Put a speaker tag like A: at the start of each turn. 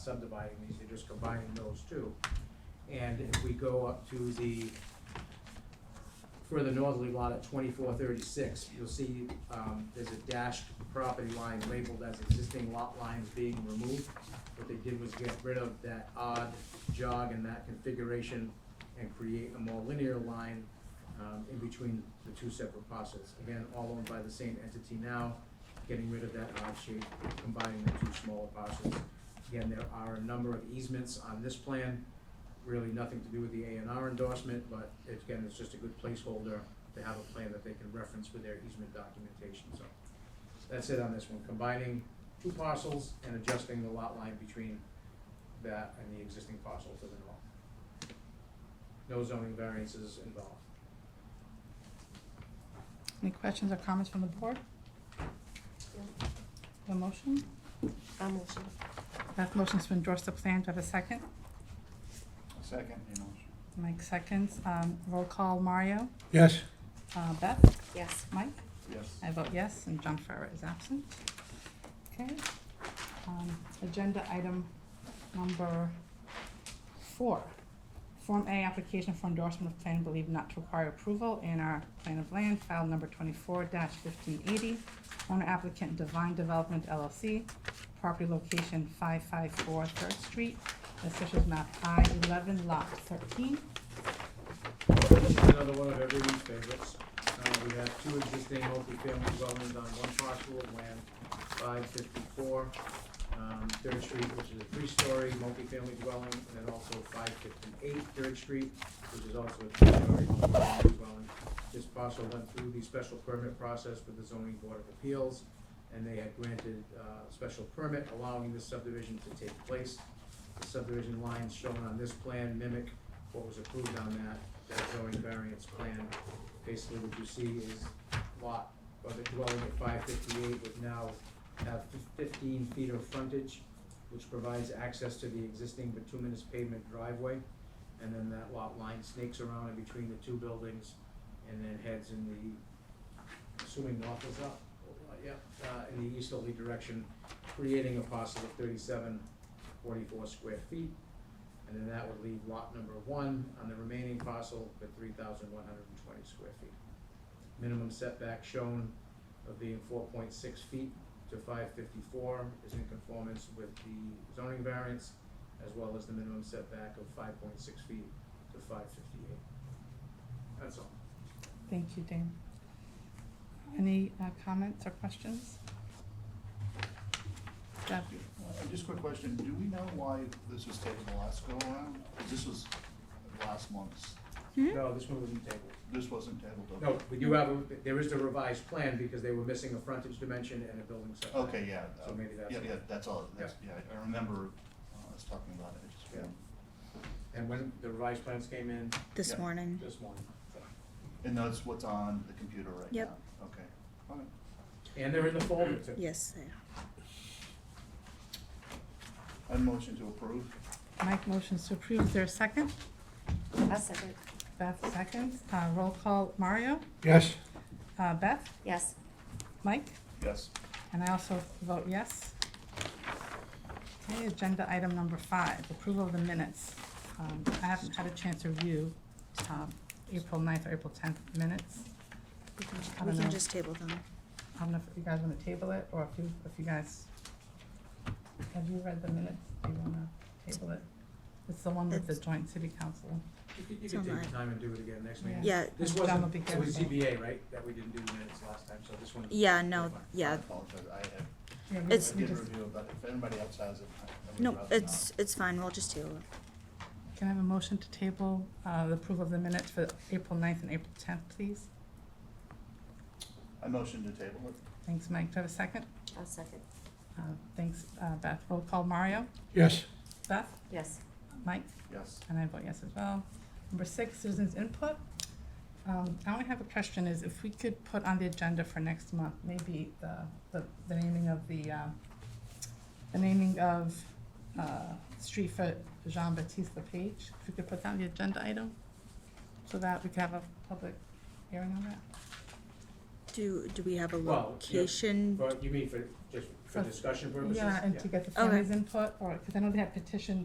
A: subdividing these, they're just combining those two. And if we go up to the further northerly lot at twenty-four thirty-six, you'll see, um, there's a dashed property line labeled as existing lot lines being removed. What they did was get rid of that odd jog in that configuration and create a more linear line, um, in between the two separate parcels. Again, all owned by the same entity now, getting rid of that odd shape, combining the two smaller parcels. Again, there are a number of easements on this plan, really nothing to do with the A and R endorsement, but it's, again, it's just a good placeholder to have a plan that they can reference for their easement documentation, so. That's it on this one, combining two parcels and adjusting the lot line between that and the existing parcel to the north. No zoning variances involved.
B: Any questions or comments from the board? The motion?
C: I motion.
B: That motion's to endorse the plan, do I have a second?
D: Second, your motion.
B: Mike seconds, um, roll call, Mario,
E: Yes,
B: uh, Beth,
C: Yes.
B: Mike?
D: Yes.
B: I vote yes, and John Farrar is absent. Okay, um, agenda item number four. Form A, application for endorsement of plan believed not to require approval in our plan of land, file number twenty-four fifteen eighty. Owner applicant Divine Development LLC, property location five five four Third Street, official map I eleven lot thirteen.
A: This is another one of everyone's favorites. Uh, we have two existing multifamily dwellings on one parcel of land, five fifty-four, um, Third Street, which is a three-story multifamily dwelling, and then also five fifty-eight Third Street, which is also a three-story multifamily dwelling. This parcel went through the special permit process with the zoning board of appeals, and they had granted, uh, special permit allowing this subdivision to take place. The subdivision lines shown on this plan mimic what was approved on that, that zoning variance plan. Basically, what you see is lot, or the dwelling at five fifty-eight would now have fif- fifteen feet of frontage, which provides access to the existing bituminous pavement driveway. And then that lot line snakes around in between the two buildings and then heads in the, assuming north is up, uh, yeah, uh, in the easterly direction, creating a parcel of thirty-seven, forty-four square feet. And then that would leave lot number one on the remaining parcel with three thousand one hundred and twenty square feet. Minimum setback shown of being four point six feet to five fifty-four is in conformance with the zoning variance as well as the minimum setback of five point six feet to five fifty-eight. That's all.
B: Thank you, Dan. Any uh, comments or questions? Deb,
D: Uh, Just a quick question, do we know why this was taken the last go around? 'Cause This was last month's,
A: No, this one wasn't tabled.
D: this wasn't tabled over.
A: No, we do have, a there is the revised plan because they were missing a frontage dimension and a building setback.
D: Okay, yeah. uh,
A: So maybe that's
D: Yeah,
A: why.
D: yeah, that's all, that's, yeah, I remember uh, us talking about it, I just.
A: Yeah. And when the revised plans came in
C: This
D: Yeah.
C: morning.
A: this morning.
D: And that's what's on the computer right now?
C: Yep.
D: Okay, all right.
A: And they're in the folder too.
C: Yes, they are.
D: I motion to approve?
B: Mike motions to approve. Is there a second?
C: I second.
B: Beth seconds. Uh, Roll call, Mario,
E: yes,
B: uh, Beth,
C: Yes.
B: Mike,
D: Yes.
B: and I also vote yes. Okay, agenda item number five, approval of the minutes. Um, I haven't had a chance to review um, April 9th or April 10th minutes.
C: We can,
B: I
C: we
B: don't
C: can
B: know.
C: just table them.
B: I don't know if you guys want to table it, or if you, if you guys, have you read the minutes? Do you want to table it? It's the one with the joint city council.
A: You could, you
C: So
A: could take
C: much.
A: your time and do it again next meeting.
C: Yeah,
A: This
B: Done with
A: wasn't,
B: the
A: it was
B: council.
A: ZBA, right, that we didn't do the minutes last time, so this one.
C: yeah, no,
D: I
C: yeah.
D: apologize, I I
B: Yeah, we-
C: It's-
B: we
D: did
B: just-
D: review it, but if anybody else has it, I- I would
C: No,
D: rather not.
C: it's, it's fine. We'll just table it.
B: Can I have a motion to table uh, the approval of the minutes for April 9th and April 10th, please?
D: I motion to table it?
B: Thanks, Mike. Do I have a second?
C: I second.
B: Uh, Thanks, uh, Beth. Roll call, Mario?
E: yes,
B: Beth?
C: Yes.
B: Mike?
D: Yes.
B: And I vote yes as well. Number six, citizens' input. Um, I only have a question is if we could put on the agenda for next month, maybe the, the, the naming of the, um, the naming of, uh, street for Jean Baptiste Page. if we could put down the agenda item, so that we could have a public hearing on that.
C: Do, do we have a
A: Well, yeah,
C: location?
A: But you mean for, just for
B: For-
A: discussion purposes?
B: Yeah, and to get the
C: Okay.
B: families' input, or, because I know they had petition